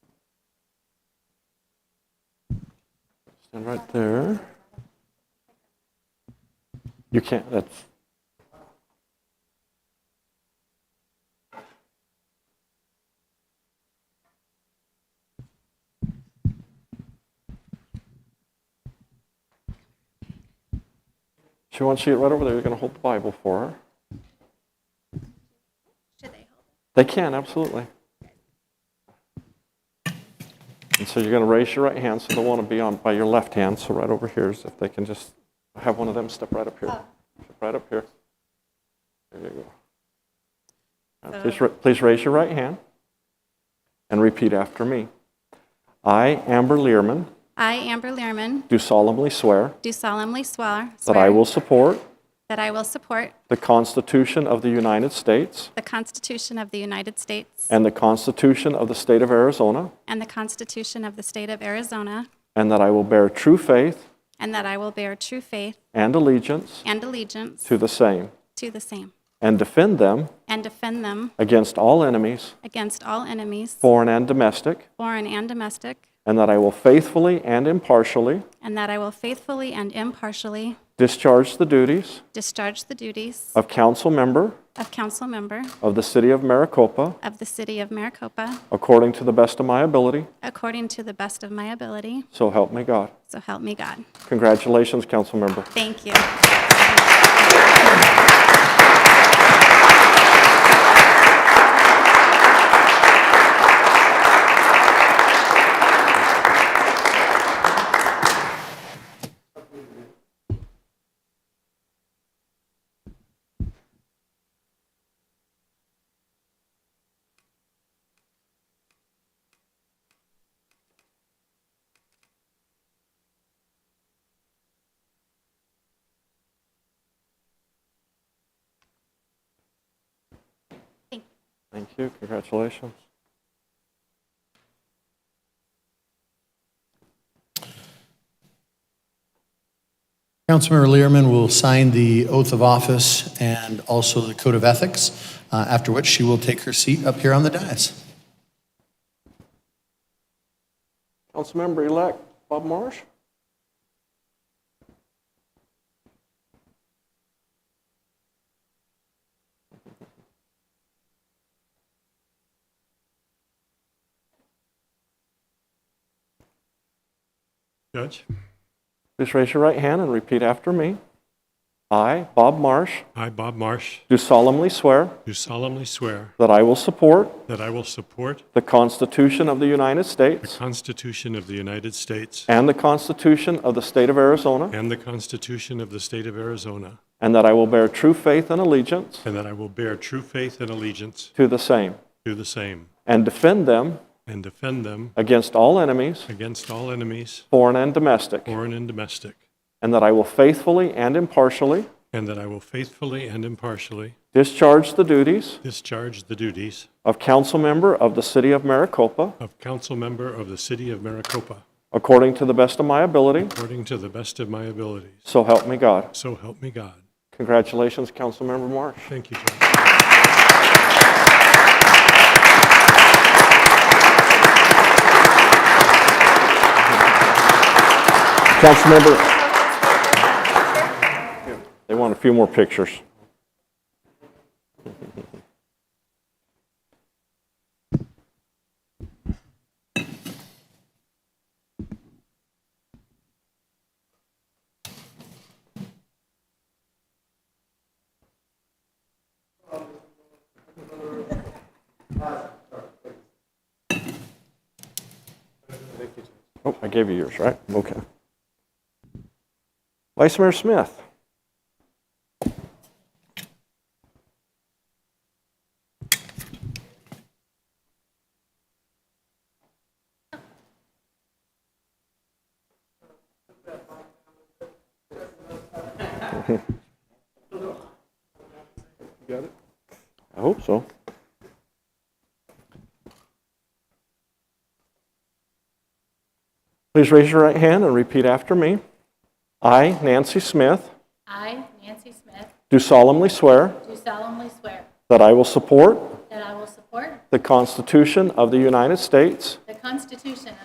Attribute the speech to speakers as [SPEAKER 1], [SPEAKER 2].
[SPEAKER 1] And right there. You can't, that's. She wants you right over there. You're going to hold the Bible for her.
[SPEAKER 2] Should they hold?
[SPEAKER 1] They can, absolutely. And so you're going to raise your right hand, so they'll want to be on by your left hand, so right over here is if they can just have one of them step right up here.
[SPEAKER 2] Oh.
[SPEAKER 1] Step right up here. There you go. Now, please, ra- please raise your right hand and repeat after me. I, Amber Learman,
[SPEAKER 2] I, Amber Learman,
[SPEAKER 1] do solemnly swear
[SPEAKER 2] do solemnly swear
[SPEAKER 1] that I
[SPEAKER 2] swear
[SPEAKER 1] will support
[SPEAKER 2] that I will support
[SPEAKER 1] the Constitution of the United States
[SPEAKER 2] the Constitution of the United States
[SPEAKER 1] and the Constitution of the State of Arizona,
[SPEAKER 2] and the Constitution of the State of Arizona,
[SPEAKER 1] and that I will bear true faith
[SPEAKER 2] and that I will bear true faith
[SPEAKER 1] and allegiance
[SPEAKER 2] and allegiance
[SPEAKER 1] to the same,
[SPEAKER 2] to the same,
[SPEAKER 1] and defend them
[SPEAKER 2] and defend them
[SPEAKER 1] against all enemies,
[SPEAKER 2] against all enemies,
[SPEAKER 1] foreign and domestic,
[SPEAKER 2] foreign and domestic,
[SPEAKER 1] and that I will faithfully and impartially
[SPEAKER 2] and that I will faithfully and impartially
[SPEAKER 1] discharge the duties
[SPEAKER 2] discharge the duties
[SPEAKER 1] of council member
[SPEAKER 2] of council member
[SPEAKER 1] of the City of Maricopa
[SPEAKER 2] of the City of Maricopa
[SPEAKER 1] according to the best of my ability,
[SPEAKER 2] according to the best of my ability,
[SPEAKER 1] so help me God.
[SPEAKER 2] so help me God.
[SPEAKER 1] Congratulations, council member.
[SPEAKER 2] Thank you. Thank you.
[SPEAKER 1] Thank you, congratulations.
[SPEAKER 3] Councilmember Learman will sign the oath of office and also the code of ethics, uh, after which she will take her seat up here on the dais.
[SPEAKER 1] Councilmember-elect Bob Marsh?
[SPEAKER 4] Judge,
[SPEAKER 1] Please raise your right hand and repeat after me. I, Bob Marsh,
[SPEAKER 4] I, Bob Marsh,
[SPEAKER 1] do solemnly swear
[SPEAKER 4] do solemnly swear
[SPEAKER 1] that I will support
[SPEAKER 4] that I will support
[SPEAKER 1] The Constitution of the United
[SPEAKER 4] the
[SPEAKER 1] States
[SPEAKER 4] Constitution of the United States
[SPEAKER 1] and the Constitution of the State of Arizona,
[SPEAKER 4] and the Constitution of the State of Arizona,
[SPEAKER 1] and that I will bear true faith and allegiance
[SPEAKER 4] and that I will bear true faith and allegiance
[SPEAKER 1] to the same,
[SPEAKER 4] to the same,
[SPEAKER 1] and defend them
[SPEAKER 4] and defend them
[SPEAKER 1] against all enemies,
[SPEAKER 4] against all enemies,
[SPEAKER 1] foreign and domestic,
[SPEAKER 4] foreign and domestic,
[SPEAKER 1] and that I will faithfully and impartially
[SPEAKER 4] and that I will faithfully and impartially
[SPEAKER 1] discharge the duties
[SPEAKER 4] discharge the duties
[SPEAKER 1] of council member of the City of Maricopa
[SPEAKER 4] of council member of the City of Maricopa
[SPEAKER 1] according to the best of my ability,
[SPEAKER 4] according to the best of my abilities.
[SPEAKER 1] so help me God.
[SPEAKER 4] So help me God.
[SPEAKER 1] Congratulations, Councilmember Marsh.
[SPEAKER 4] Thank you, Judge.
[SPEAKER 1] Councilmember. They want a few more pictures. Oh, I gave you yours, right? Okay. Vice Mayor Smith. Got it? I hope so. Please raise your right hand and repeat after me. I, Nancy Smith,
[SPEAKER 5] I, Nancy Smith,
[SPEAKER 1] do solemnly swear
[SPEAKER 5] do solemnly swear
[SPEAKER 1] that I will support
[SPEAKER 5] that I will support
[SPEAKER 1] the Constitution of the United States
[SPEAKER 5] the Constitution